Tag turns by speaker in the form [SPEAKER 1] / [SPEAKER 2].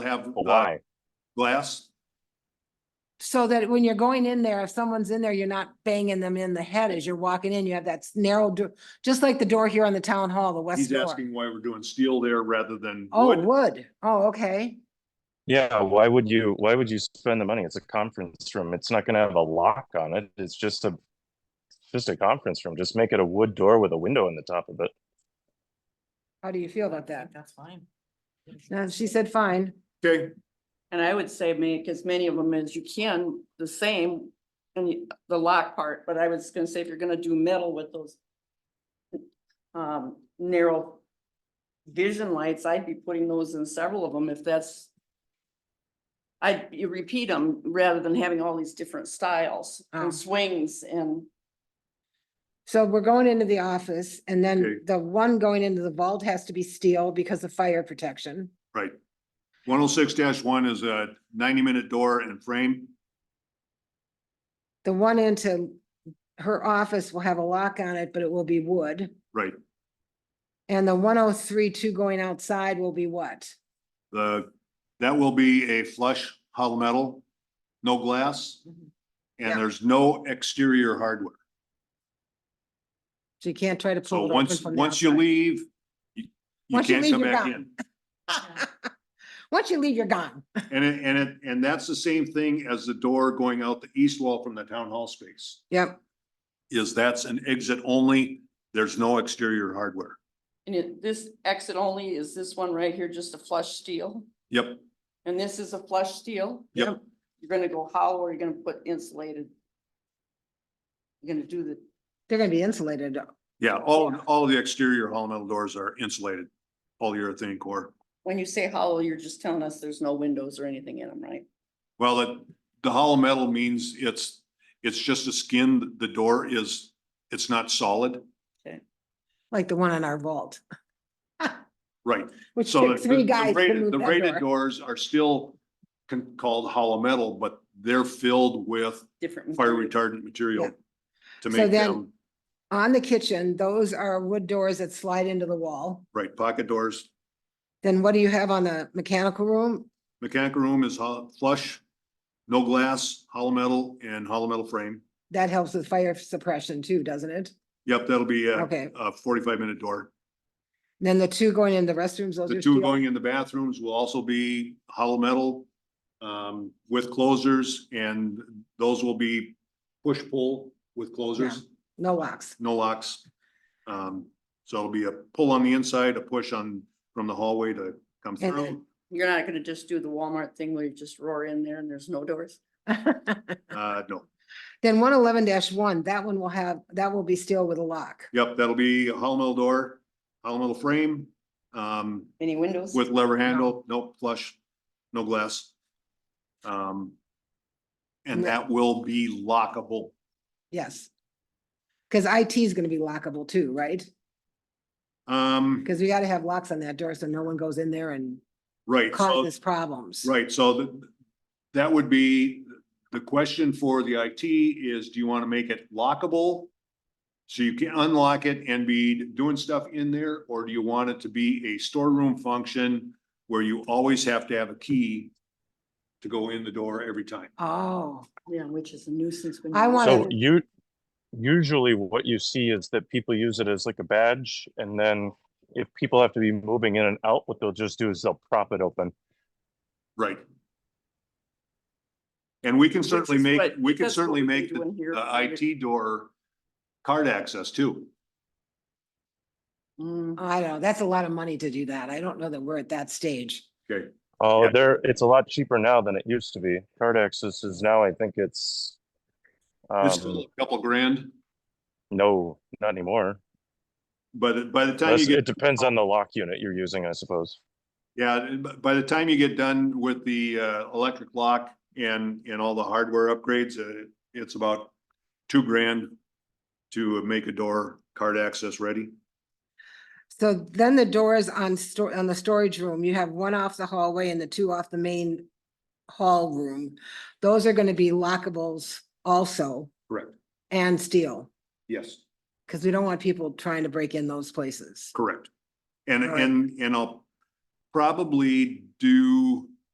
[SPEAKER 1] have uh,
[SPEAKER 2] But Why?
[SPEAKER 1] glass.
[SPEAKER 3] So that when you're going in there, if someone's in there, you're not banging them in the head as you're walking in. You have that s- narrow door, just like the door here on the town hall, the west
[SPEAKER 1] He's
[SPEAKER 3] door.
[SPEAKER 1] asking why we're doing steel there rather than
[SPEAKER 3] Oh,
[SPEAKER 1] wood.
[SPEAKER 3] wood. Oh, okay.
[SPEAKER 2] Yeah, why would you, why would you spend the money? It's a conference room. It's not gonna have a lock on it. It's just a just a conference room. Just make it a wood door with a window in the top of it.
[SPEAKER 3] How do you feel about that?
[SPEAKER 4] That's fine.
[SPEAKER 3] And she said, fine.
[SPEAKER 1] Okay,
[SPEAKER 4] And I would say make as many of them as you can, the same, and you- the lock part, but I was gonna say if you're gonna do metal with those um, narrow vision lights, I'd be putting those in several of them if that's I'd you repeat them rather than having all these different styles
[SPEAKER 3] Oh.
[SPEAKER 4] and swings and
[SPEAKER 3] So we're going into the office and
[SPEAKER 1] Okay.
[SPEAKER 3] then the one going into the vault has to be steel because of fire protection.
[SPEAKER 1] right. One oh six one is a ninety minute door and frame.
[SPEAKER 3] The one into her office will have a lock on it, but it will be wood.
[SPEAKER 1] Right.
[SPEAKER 3] And the one oh three two going outside will be what?
[SPEAKER 1] The, that will be a flush hollow metal, no glass.
[SPEAKER 3] Mm-hmm. Yeah.
[SPEAKER 1] And there's no exterior hardware.
[SPEAKER 3] So you can't try to
[SPEAKER 1] So
[SPEAKER 3] pull it open
[SPEAKER 1] once,
[SPEAKER 3] from the
[SPEAKER 1] once you
[SPEAKER 3] outside.
[SPEAKER 1] leave, you you
[SPEAKER 3] Once you
[SPEAKER 1] can't
[SPEAKER 3] leave,
[SPEAKER 1] come
[SPEAKER 3] you're
[SPEAKER 1] back
[SPEAKER 3] gone.
[SPEAKER 1] in.
[SPEAKER 3] Once you leave, you're gone.
[SPEAKER 1] And it, and it, and that's the same thing as the door going out the east wall from the town hall space.
[SPEAKER 3] Yep.
[SPEAKER 1] Is that's an exit only, there's no exterior hardware.
[SPEAKER 4] and it, this exit only is this one right here, just a flush steel?
[SPEAKER 1] Yep,
[SPEAKER 4] And this is a flush steel?
[SPEAKER 1] Yep.
[SPEAKER 4] You're gonna- You're gonna go hollow or you're gonna put insulated? You're gonna do the,
[SPEAKER 3] They're gonna be insulated.
[SPEAKER 1] yeah, all, all the exterior hollow metal doors are insulated, polyurethane core.
[SPEAKER 4] when you say hollow, you're just telling us there's no windows or anything in them, right?
[SPEAKER 1] Well, the, the hollow metal means it's, it's just a skin, the door is, it's not solid,
[SPEAKER 3] like the one on our vault,
[SPEAKER 1] right?
[SPEAKER 3] which
[SPEAKER 1] So
[SPEAKER 3] took
[SPEAKER 1] the-
[SPEAKER 3] three
[SPEAKER 1] the- the
[SPEAKER 3] guys to
[SPEAKER 1] rated-
[SPEAKER 3] move
[SPEAKER 1] The
[SPEAKER 3] that
[SPEAKER 1] rated
[SPEAKER 3] door.
[SPEAKER 1] doors are still con- called hollow metal, but they're filled with
[SPEAKER 4] Different.
[SPEAKER 1] fire
[SPEAKER 4] material.
[SPEAKER 1] retardant material
[SPEAKER 3] Yeah.
[SPEAKER 1] to
[SPEAKER 3] So
[SPEAKER 1] make
[SPEAKER 3] then-
[SPEAKER 1] them,
[SPEAKER 3] On the kitchen, those are wood doors that slide into the wall.
[SPEAKER 1] right, pocket doors.
[SPEAKER 3] Then what do you have on the mechanical room?
[SPEAKER 1] Mechanical room is hol- flush, no glass, hollow metal and hollow metal frame.
[SPEAKER 3] That helps with fire suppression too, doesn't it?
[SPEAKER 1] Yep, that'll be uh, a,
[SPEAKER 3] Okay,
[SPEAKER 1] a forty-five minute door.
[SPEAKER 3] then the two going in the restrooms, those
[SPEAKER 1] The
[SPEAKER 3] are
[SPEAKER 1] two
[SPEAKER 3] steel.
[SPEAKER 1] going in the bathrooms will also be hollow metal um, with closers and those will be push-pull with closers,
[SPEAKER 3] no locks.
[SPEAKER 1] no locks. Um, so it'll be a pull on the inside, a push on, from the hallway to come
[SPEAKER 3] And then-
[SPEAKER 1] through.
[SPEAKER 4] You're not gonna just do the Walmart thing where you just roar in there and there's no doors?
[SPEAKER 1] Uh, no,
[SPEAKER 3] Then one eleven one, that one will have, that will be steel with a lock.
[SPEAKER 1] yep, that'll be a hollow metal door, hollow metal frame, um,
[SPEAKER 4] Any windows?
[SPEAKER 1] With lever handle, no flush, no glass. Um. And
[SPEAKER 3] No.
[SPEAKER 1] that will be lockable.
[SPEAKER 3] Yes. Cause IT is gonna be lockable too, right?
[SPEAKER 1] Um,
[SPEAKER 3] Cause we gotta have locks on that door so no one goes in there and
[SPEAKER 1] right, so,
[SPEAKER 3] causes problems.
[SPEAKER 1] right, so the, that would be, the question for the IT is, do you want to make it lockable? So you can unlock it and be doing stuff in there, or do you want it to be a storeroom function where you always have to have a key to go in the door every time?
[SPEAKER 3] Oh,
[SPEAKER 4] Yeah, which is a nuisance. when
[SPEAKER 3] I
[SPEAKER 4] you-
[SPEAKER 3] wanna-
[SPEAKER 2] So
[SPEAKER 3] Right.
[SPEAKER 2] you usually what you see is that people use it as like a badge and then if people have to be moving in and out, what they'll just do is they'll prop it open.
[SPEAKER 1] Right. And we can
[SPEAKER 4] Which
[SPEAKER 1] certainly
[SPEAKER 4] is
[SPEAKER 1] make,
[SPEAKER 4] what-
[SPEAKER 1] we can
[SPEAKER 4] that's what
[SPEAKER 1] certainly
[SPEAKER 4] we've
[SPEAKER 1] make
[SPEAKER 4] been
[SPEAKER 1] the
[SPEAKER 4] doing here
[SPEAKER 1] the
[SPEAKER 4] for years.
[SPEAKER 1] IT door card access too.
[SPEAKER 4] Mm,
[SPEAKER 3] I don't know. That's a lot of money to do that. I don't know that we're at that stage.
[SPEAKER 1] Okay,
[SPEAKER 2] Oh,
[SPEAKER 1] Yeah.
[SPEAKER 2] there, it's a lot cheaper now than it used to be. Card access is now, I think it's
[SPEAKER 1] it's still
[SPEAKER 2] um,
[SPEAKER 1] a couple grand,
[SPEAKER 2] no, not anymore.
[SPEAKER 1] but by the time you
[SPEAKER 2] Unless- It
[SPEAKER 1] get,
[SPEAKER 2] depends on the lock unit you're using, I suppose.
[SPEAKER 1] yeah, b- by the time you get done with the uh, electric lock and, and all the hardware upgrades, uh, it's about two grand to make a door card access ready.
[SPEAKER 3] So then the doors on store, on the storage room, you have one off the hallway and the two off the main hall room. Those are gonna be lockables also
[SPEAKER 1] Correct.
[SPEAKER 3] and steel,
[SPEAKER 1] Yes.
[SPEAKER 3] because we don't want people trying to break in those places.
[SPEAKER 1] Correct. And,
[SPEAKER 3] All right.
[SPEAKER 1] and, and I'll probably do